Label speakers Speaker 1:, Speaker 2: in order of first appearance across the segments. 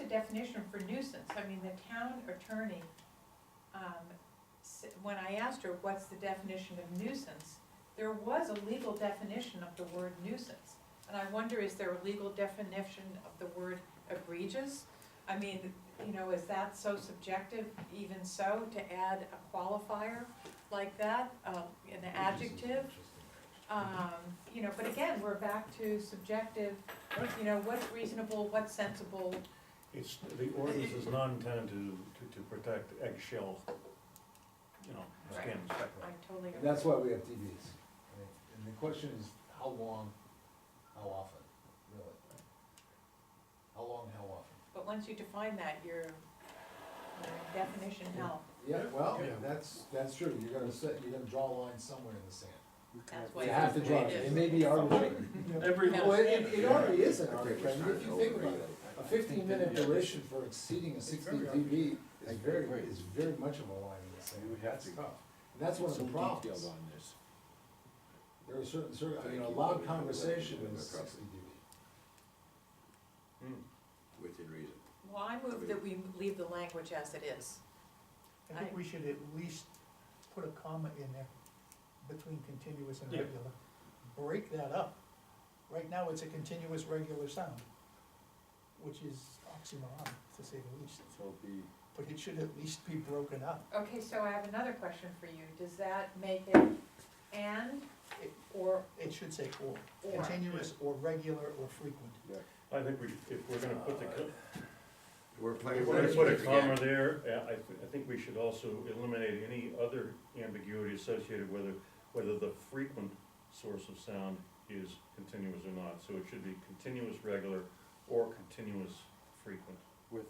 Speaker 1: a definition for nuisance, I mean, the town attorney, um, s- when I asked her, what's the definition of nuisance? There was a legal definition of the word nuisance, and I wonder, is there a legal definition of the word egregious? I mean, you know, is that so subjective, even so, to add a qualifier like that, um, an adjective? Um, you know, but again, we're back to subjective, you know, what's reasonable, what's sensible,
Speaker 2: It's, the ordinance is not intended to, to, to protect eggshell, you know,
Speaker 1: Right.
Speaker 2: skins.
Speaker 1: I totally agree.
Speaker 3: That's why we have TVs. right? And the question is, how long, how often, really? How long, how often?
Speaker 1: But once you define that, your, your definition hell,
Speaker 3: Yeah, well,
Speaker 2: Yeah.
Speaker 3: that's, that's true, you're gonna set, you're gonna draw a line somewhere in the sand.
Speaker 1: that's why.
Speaker 3: You have to
Speaker 1: it's
Speaker 3: draw
Speaker 1: the way
Speaker 3: it,
Speaker 1: it
Speaker 3: it
Speaker 1: is.
Speaker 3: may be arbitrary.
Speaker 2: Every
Speaker 1: Yeah.
Speaker 3: Well, it, it already is an
Speaker 4: I think it's
Speaker 3: arbitrary, if you think about
Speaker 4: overrated.
Speaker 3: it, a fifteen minute duration for exceeding a sixty dB
Speaker 4: It's
Speaker 3: is very,
Speaker 4: very-
Speaker 3: is very much of a line in the sand,
Speaker 4: You would have
Speaker 3: that's
Speaker 4: to-
Speaker 3: tough. And that's one of the
Speaker 4: Some
Speaker 3: problems.
Speaker 4: detail on this.
Speaker 3: There are certain, certain, I mean, a
Speaker 4: Thank you.
Speaker 3: loud conversation
Speaker 4: Yeah,
Speaker 3: is
Speaker 4: no problem.
Speaker 3: sixty dB.
Speaker 4: Within reason.
Speaker 1: Well, I move that we leave the language as it is.
Speaker 5: I think we should at least put a comma in there between continuous and
Speaker 2: Yeah.
Speaker 5: regular. Break that up. Right now, it's a continuous regular sound, which is oxymoron, to say the least,
Speaker 4: So the,
Speaker 5: but it should at least be broken up.
Speaker 1: Okay, so I have another question for you, does that make it and or
Speaker 5: It should say or,
Speaker 1: or?
Speaker 5: continuous or regular or frequent.
Speaker 2: I think we, if we're gonna put the, co-
Speaker 4: we're playing.
Speaker 2: if we're gonna put a comma there, uh, I, thi- I think we should also eliminate any other ambiguity associated whether, whether the frequent source of sound is continuous or not. So it should be continuous regular or continuous frequent.
Speaker 6: With,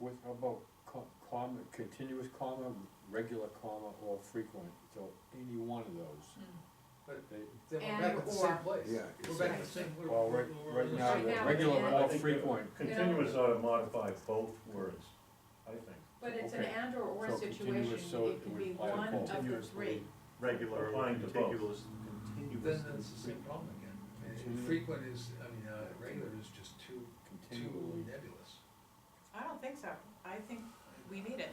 Speaker 6: with, how about co- comma, continuous comma, regular comma, or frequent, so any one of those.
Speaker 1: Hmm.
Speaker 6: They,
Speaker 3: Then
Speaker 1: And
Speaker 3: we're back at the same
Speaker 1: or.
Speaker 3: place.
Speaker 4: Yeah.
Speaker 3: We're
Speaker 4: it's
Speaker 3: back at
Speaker 4: like-
Speaker 3: the same. where-
Speaker 6: well, right,
Speaker 3: where- where-
Speaker 6: right now,
Speaker 1: Right now,
Speaker 6: the regular
Speaker 1: yeah.
Speaker 6: or
Speaker 2: I think, uh,
Speaker 6: frequent,
Speaker 2: Continuous ought to modify both words, I think.
Speaker 1: But it's an
Speaker 6: Okay.
Speaker 1: and or or
Speaker 6: So
Speaker 1: situation,
Speaker 6: continuous, so
Speaker 1: it
Speaker 6: it
Speaker 1: can
Speaker 6: would
Speaker 1: be
Speaker 6: apply to
Speaker 1: one
Speaker 6: both.
Speaker 1: of the three.
Speaker 2: Regular applying to both.
Speaker 7: Then that's the same problem again. I mean,
Speaker 6: Continuous.
Speaker 7: Frequent is, I mean, uh, regular is just too, too
Speaker 6: continually,
Speaker 7: nebulous.
Speaker 1: I don't think so, I think we need it.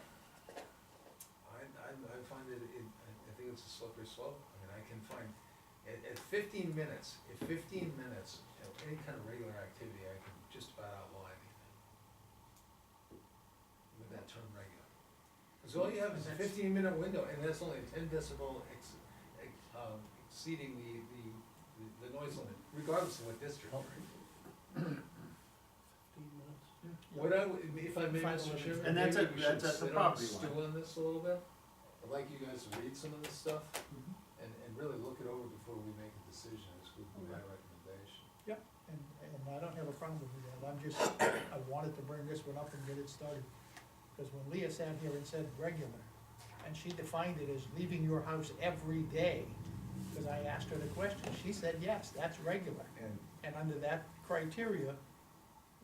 Speaker 7: I, I, I find it, it, I I think it's a slippery slope. I mean, I can find, at, at fifteen minutes, at fifteen minutes, of any kind of regular activity, I can just about outline anything. With that term regular. Cause all you have is a fifteen minute window, and that's only a ten decibel ex, ex, um, exceeding the, the, the- the noise limit, regardless of what district you're in. What I, would- if I may,
Speaker 5: Five
Speaker 7: Mr.
Speaker 5: elements.
Speaker 7: Chairman,
Speaker 8: And
Speaker 7: maybe we
Speaker 8: that's
Speaker 7: should
Speaker 8: at- that's at
Speaker 7: sit on,
Speaker 8: the property line.
Speaker 7: stew on this a little bit. I'd like you guys to read some of this stuff and, and really look it over before we make a decision, this would be my recommendation.
Speaker 5: And, and I don't have a problem with that, I'm just, I wanted to bring this one up and get it started. Because when Leah sat here and said regular, and she defined it as leaving your house every day, because I asked her the question, she said, yes, that's regular.
Speaker 3: And
Speaker 5: And under that criteria,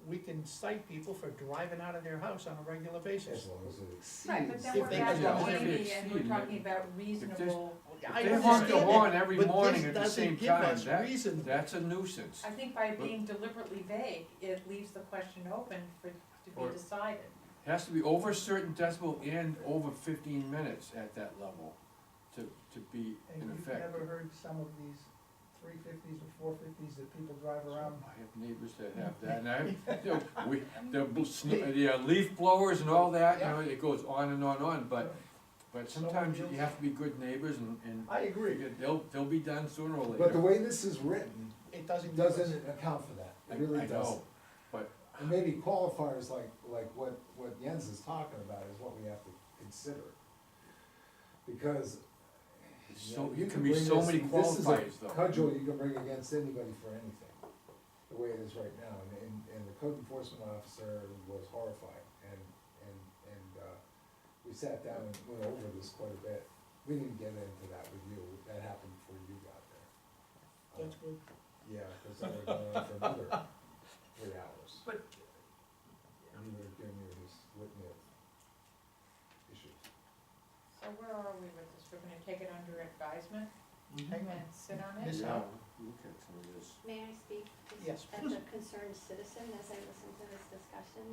Speaker 5: we can cite people for driving out of their house on a regular
Speaker 3: as
Speaker 5: basis.
Speaker 3: long as it exceeds.
Speaker 1: Right, but then
Speaker 5: If
Speaker 1: we're
Speaker 5: they
Speaker 1: back
Speaker 5: could
Speaker 1: to
Speaker 5: just-
Speaker 1: Amy and we're
Speaker 6: exceed it.
Speaker 1: talking about reasonable,
Speaker 5: I
Speaker 6: They honk the
Speaker 5: understand
Speaker 6: horn
Speaker 5: that,
Speaker 6: every
Speaker 5: but
Speaker 6: morning
Speaker 5: this
Speaker 6: at the
Speaker 5: doesn't
Speaker 6: same
Speaker 5: give
Speaker 6: time.
Speaker 5: us
Speaker 6: That-
Speaker 5: reason.
Speaker 6: that's a nuisance.
Speaker 1: I think by being deliberately vague, it leaves the question open for, to
Speaker 6: Or-
Speaker 1: be decided.
Speaker 6: It Has to be over a certain decibel and over fifteen minutes at that level to, to be
Speaker 5: And
Speaker 6: in
Speaker 5: you've
Speaker 6: effect.
Speaker 5: never heard some of these three fifties or four fifties that people drive
Speaker 6: I have
Speaker 5: around
Speaker 6: neighbors that have that, and I, you know, we, the, bl- sn- the uh, leaf blowers and all that, you know, it goes on and on and on, but, but
Speaker 5: Someone
Speaker 6: sometimes you
Speaker 5: deals-
Speaker 6: have to be good neighbors and, and
Speaker 5: I agree,
Speaker 6: figure they'll, they'll be done sooner or
Speaker 3: But the
Speaker 6: later.
Speaker 3: way this is written,
Speaker 5: it
Speaker 3: it
Speaker 5: doesn't give us-
Speaker 3: doesn't account for that,
Speaker 6: I-
Speaker 3: it really
Speaker 6: I know.
Speaker 3: doesn't.
Speaker 6: but-
Speaker 3: And maybe qualifiers like, like what, what Jens is talking about is what we have to consider. Because.
Speaker 6: It's
Speaker 3: you
Speaker 6: So,
Speaker 3: know,
Speaker 6: you
Speaker 3: you
Speaker 6: can be
Speaker 3: bring
Speaker 6: so
Speaker 3: this-
Speaker 6: many
Speaker 3: this is a
Speaker 6: qualifiers though.
Speaker 3: Cudgel you can bring against anybody for anything, the way it is right now, and, and, and the code enforcement officer was horrified, and, and, and, uh, we sat down and went over this quite a bit, we didn't get into that with you, that happened before you got there. Uh,
Speaker 5: That's good.
Speaker 3: Yeah, cause I would've gone on for another three hours.
Speaker 8: But-
Speaker 3: And you would've given me this litany of issues.
Speaker 1: So where are we with this? We're gonna take it under advisement
Speaker 5: Hang
Speaker 1: and
Speaker 5: on.
Speaker 1: sit on it?
Speaker 5: Miss-
Speaker 6: Yeah, look at some of this.
Speaker 9: May I speak?
Speaker 5: Yes,
Speaker 9: As
Speaker 5: please.
Speaker 9: a concerned citizen, as I listen to this discussion,